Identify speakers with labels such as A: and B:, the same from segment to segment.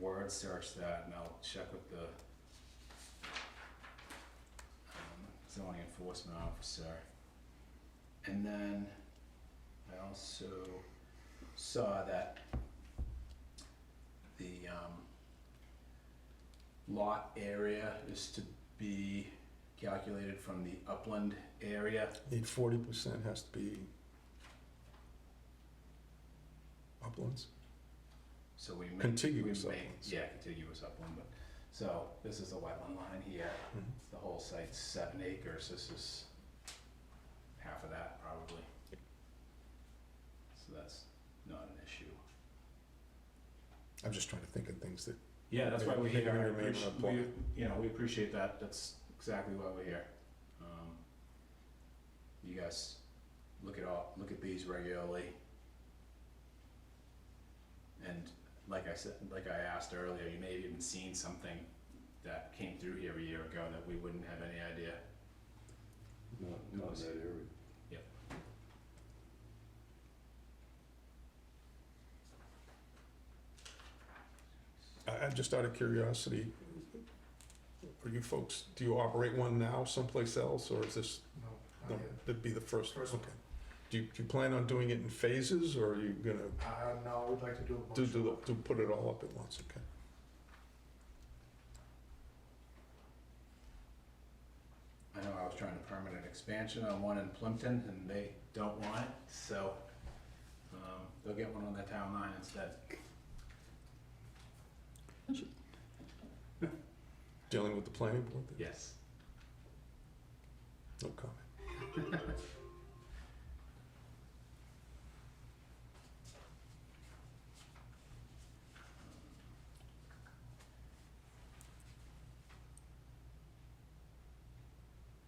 A: word search that and I'll check with the um, zoning enforcement officer. And then I also saw that the um lot area is to be calculated from the upland area.
B: The forty percent has to be uplands.
A: So we make.
B: Contiguous
A: we make-
B: uplands.
A: Yeah, contiguous upland, but, so this is the wetland line here,
C: Mm-hmm.
B: Mhm.
A: the whole site's seven acres, this is half of that probably. So that's not an issue.
B: I'm just trying to think of things that,
A: Yeah, that's why we're
B: Maybe-
A: here, I
B: maybe
A: appreciate,
B: not
A: we, you know, we appreciate that, that's exactly why we're here. Um, You guys, look at all, look at these regularly. And like I said, like I asked earlier, you may have even seen something that came through here a year ago that we wouldn't have any idea.
D: Not,
A: It
D: not
A: was-
D: in that area.
B: I, I just out of curiosity, are you folks, do you operate one now someplace else, or is this,
C: No, not
B: no,
C: yet.
B: that'd be the first?
C: First one.
B: Okay. Do you, do you plan on doing it in phases, or are you gonna
C: Uh, no, we'd like to do a bunch.
B: do,
C: of them.
B: do, do put it all up at once, okay?
A: I know I was trying to permanent expansion on one in Plimpton and they don't want it, so, um, they'll get one on the town line instead.
B: Dealing with the planning board, then?
A: Yes.
B: no comment.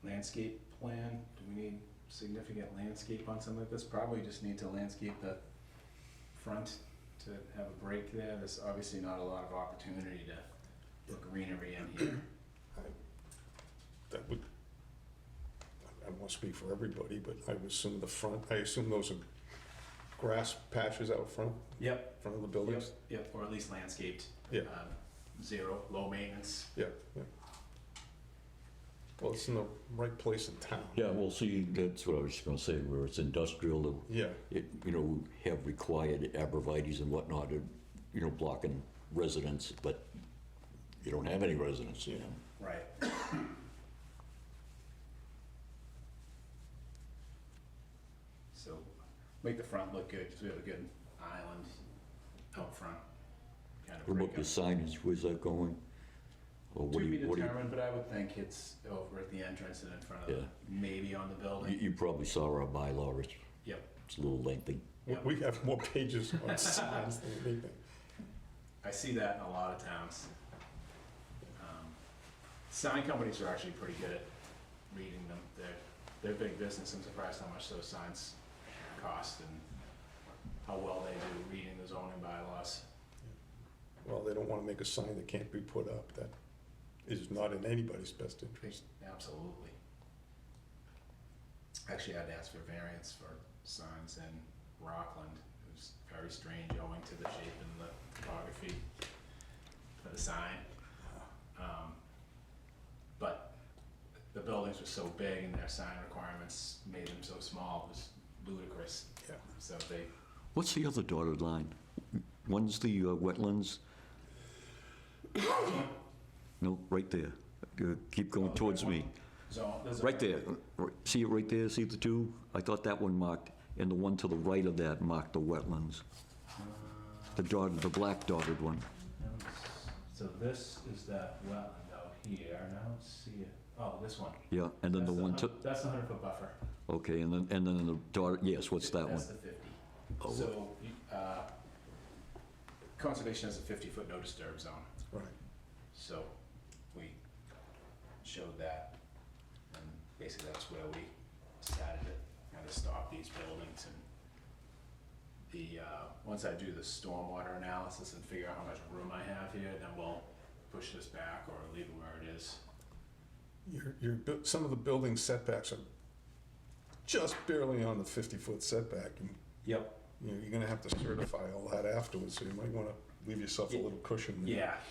A: Landscape plan, do we need significant landscape on something like this? Probably just need to landscape the front to have a break there. There's obviously not a lot of opportunity to put greenery in here.
B: That would, I- I won't speak for everybody, but I would assume the front, I assume those are grass patches out front,
A: Yep.
B: front of the buildings?
A: Yep, or at least landscaped.
B: Yeah.
A: Um, Zero, low maintenance.
B: Yeah, yeah. Well, it's in the right place in town.
D: Yeah,
E: Well, see, that's what I was just gonna say, where it's industrial,
B: Yeah,
E: it, you know, have required abrevieties and whatnot, uh, you know, blocking residents, but you don't have any residents, you know?
A: Right. So, make the front look good, because we have a good island out front. Kind of
E: What
A: break
E: about
A: up.
E: the signage, where's that going? Or
A: To
E: what do
A: be
E: you, what do you,
A: determined, but I would think it's over at the entrance and in front of,
E: Yeah.
A: the- maybe on the
E: you
A: building.
E: you probably saw our bylaw, it's,
A: Yep.
E: it's a little lengthy.
B: we-
A: Yeah.
B: we have more pages on signs than anything.
A: I see that in a lot of towns. Um, Sign companies are actually pretty good at reading them. They're, they're big business. I'm surprised how much those signs cost and how well they do reading the zoning bylaws.
B: Well, they don't wanna make a sign that can't be put up, that is not in anybody's best interest.
A: Absolutely. Actually, I'd ask for variance for signs in Rockland. It was very strange owing to the shape and the topography of the sign. Um, But the buildings were so big and their sign requirements made them so small, it was ludicrous.
B: Yeah.
A: So they,
E: What's the other dotted line? One's the uh, wetlands? No, right there. Uh, Keep
A: Oh,
E: going
A: that
E: towards me.
A: one? so there's a.
E: Right there, Right- see it right there, see the two? I thought that one marked, and the one to the right of that marked the wetlands,
A: Uh,
E: the dotted, the black dotted one.
A: So this is that wetland out here, and I don't see it. Oh, this one.
E: Yeah, and then the
A: That's
E: one to,
A: hun- That's the hundred foot buffer.
E: okay, and then, and then the dotted, yes, what's that one?
A: That's the fifty.
E: Oh.
A: So, you- uh, conservation has a fifty foot no disturb zone,
B: Right,
A: so we showed that. And basically that's where we decided to kind of stop these buildings and the, uh, once I do the stormwater analysis and figure out how much room I have here, then we'll push this back or leave it where it is.
B: your, your, bu- some of the building setbacks are just barely on the fifty-foot setback, and
A: Yep.
B: you know, you're gonna have to certify all that afterwards, so you might wanna leave yourself a little cushion there.
A: Yeah,